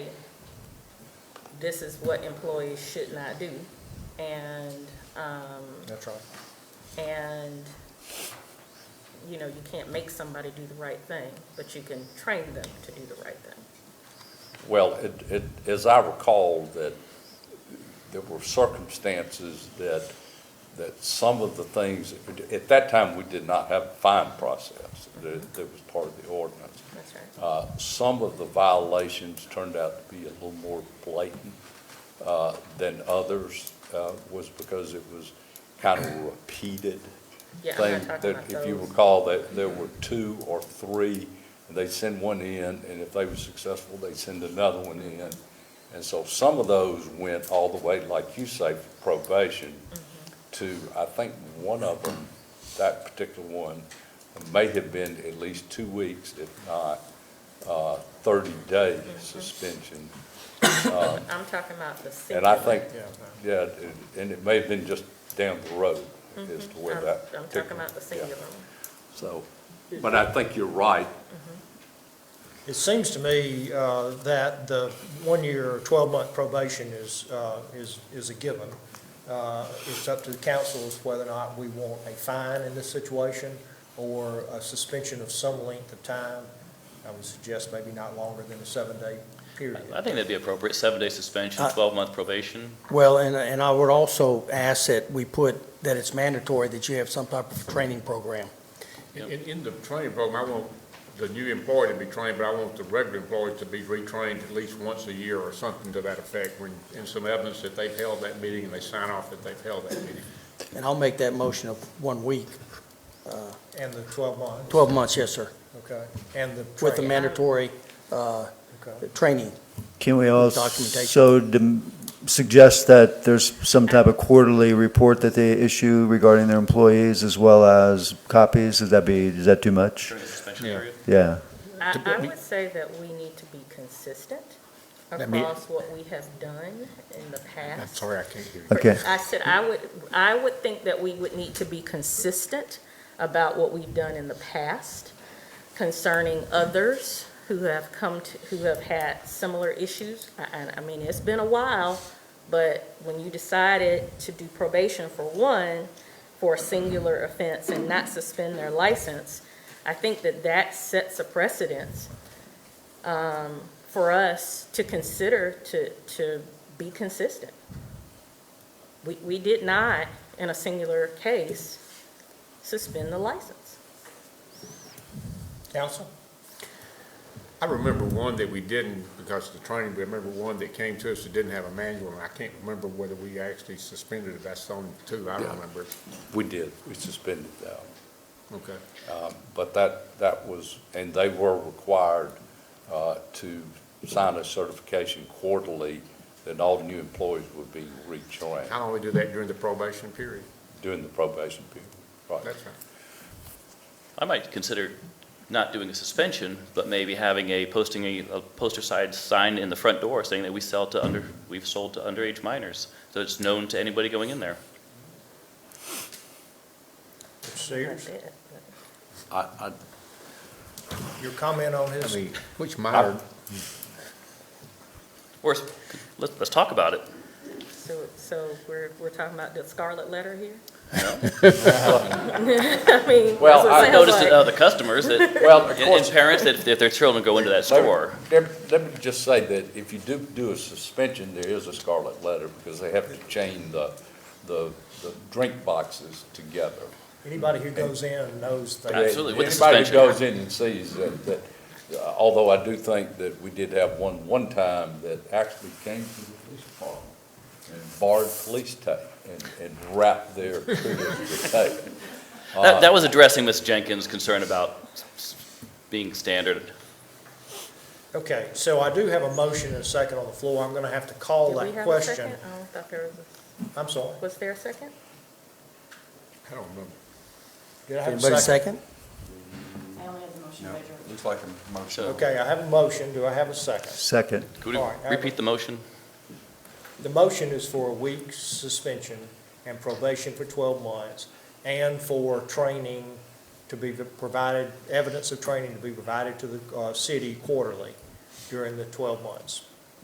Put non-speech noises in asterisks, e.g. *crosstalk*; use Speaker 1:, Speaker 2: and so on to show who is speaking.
Speaker 1: this is what employees should not do. And, um,
Speaker 2: That's right.
Speaker 1: and, you know, you can't make somebody do the right thing, but you can train them to do the right thing.
Speaker 3: Well, it, it, as I recall, that there were circumstances that, that some of the things, at that time, we did not have a fine process that, that was part of the ordinance.
Speaker 1: That's right.
Speaker 3: Uh, Some of the violations turned out to be a little more blatant uh, than others, uh, was because it was kind of a repeated
Speaker 1: Yeah,
Speaker 3: thing.
Speaker 1: I'm not talking
Speaker 3: that
Speaker 1: about
Speaker 3: If you
Speaker 1: those.
Speaker 3: recall, that there were two or three, and they send one in, and if they were successful, they send another one in. And so some of those went all the way, like you say, probation,
Speaker 1: Mm-hmm.
Speaker 3: to, I think, one of them, that particular one, may have been at least two weeks, if not uh, 30-day
Speaker 1: Mm-hmm.
Speaker 3: suspension.
Speaker 1: I'm talking about the city.
Speaker 3: And I think,
Speaker 2: Yeah.
Speaker 3: yeah, it- and it may have been just down the road as to where
Speaker 1: Mm-hmm. I'm- I'm
Speaker 3: that.
Speaker 1: talking
Speaker 3: particular-
Speaker 1: about the
Speaker 3: yeah.
Speaker 1: singular one.
Speaker 3: So, but I think you're right.
Speaker 2: It seems to me uh, that the one-year, 12-month probation is, uh, is, is a given. Uh, It's up to the council as whether or not we want a fine in this situation or a suspension of some length of time. I would suggest maybe not longer than a seven-day period.
Speaker 4: I think that'd be appropriate, seven-day suspension,
Speaker 5: Uh,
Speaker 4: 12-month probation.
Speaker 5: Well, and, and I would also ask that we put, that it's mandatory that you have some type of training program.
Speaker 6: In, in- in the training program, I want the new employee to be trained, but I want the regular employees to be retrained at least once a year or something to that effect, when, and some evidence that they've held that meeting and they sign off that they've held that meeting.
Speaker 5: And I'll make that motion of one week,
Speaker 2: And the 12 months?
Speaker 5: 12 months, yes, sir,
Speaker 2: Okay, and the
Speaker 5: with the
Speaker 2: training,
Speaker 5: mandatory uh,
Speaker 2: okay.
Speaker 5: training.
Speaker 7: Can we
Speaker 5: documentation.
Speaker 7: also dem- suggest that there's some type of quarterly report that they issue regarding their employees as well as copies? Does that be, is that too much?
Speaker 4: During the suspension
Speaker 6: Yeah.
Speaker 4: period?
Speaker 7: Yeah.
Speaker 1: I,
Speaker 6: To-
Speaker 1: I
Speaker 6: we-
Speaker 1: would say that we need to be consistent
Speaker 6: Let me-
Speaker 1: across what we have done in the past.
Speaker 6: I can't hear you.
Speaker 7: Okay.
Speaker 1: I said, I would, I would think that we would need to be consistent about what we've done in the past concerning others who have come to, who have had similar issues. I, I- I mean, it's been a while, but when you decided to do probation for one, for a singular offense and not suspend their license, I think that that sets a precedence um, for us to consider to, to be consistent. We, we did not, in a singular case, suspend the license.
Speaker 2: Counsel?
Speaker 6: I remember one that we didn't because of the training, but I remember one that came to us that didn't have a manual, and I can't remember whether we actually suspended it, that's the only two I
Speaker 3: Yeah.
Speaker 6: remember.
Speaker 3: We did, we suspended that.
Speaker 6: Okay.
Speaker 3: Um, But that, that was, and they were required uh, to sign a certification quarterly that all new employees would be retrained
Speaker 6: I only do that during the probation period,
Speaker 3: during the probation period. Right.
Speaker 6: that's right.
Speaker 4: I might consider not doing a suspension, but maybe having a, posting a a poster side sign in the front door saying that we sell to under, we've sold to underage minors, so it's known to anybody going in there.
Speaker 2: Mr. Sears,
Speaker 1: That's it.
Speaker 3: I, I,
Speaker 2: your comment on his?
Speaker 6: I mean, which minor,
Speaker 4: Or, s- let's, let's talk about it.
Speaker 1: So, so we're, we're talking about the scarlet letter here? *laughs* I mean, that's what
Speaker 3: Well,
Speaker 1: it
Speaker 3: I
Speaker 4: I've
Speaker 1: sounds
Speaker 4: noticed that
Speaker 1: like.
Speaker 4: other customers that,
Speaker 2: *laughs*
Speaker 3: Well, of
Speaker 4: and- and
Speaker 3: course-
Speaker 4: parents, that if their children go into that
Speaker 3: Let me-
Speaker 4: store,
Speaker 3: Let me- let me just say that if you do do a suspension, there is a scarlet letter because they have to chain the, the, the drink boxes together.
Speaker 2: Anybody who goes in knows that.
Speaker 4: Absolutely, with the
Speaker 3: Anybody who
Speaker 4: suspension.
Speaker 3: goes in and sees that, that, although I do think that we did have one, one time that actually came to the police department and barred police tape and, and wrapped their *laughs* triggers with tape.
Speaker 2: Uh,
Speaker 4: that, that was addressing Ms. Jenkins' concern about s- s- being standard.
Speaker 2: Okay, so I do have a motion and a second on the floor. I'm going to have to call
Speaker 1: Did we
Speaker 2: that
Speaker 1: have a
Speaker 2: question.
Speaker 1: second? Oh, I thought there was,
Speaker 2: I'm sorry.
Speaker 1: a- was there a second?
Speaker 6: I don't remember.
Speaker 2: Did I have
Speaker 5: Anybody
Speaker 2: a second?
Speaker 5: second?
Speaker 8: I only have the motion later.
Speaker 3: Looks like a motion.
Speaker 2: Okay, I have a motion. Do I have a second?
Speaker 7: Second.
Speaker 4: Could we
Speaker 2: All right, I-
Speaker 4: repeat the motion?
Speaker 2: The motion is for a week's suspension and probation for 12 months and for training to be provided, evidence of training to be provided to the uh, city quarterly during the 12 months.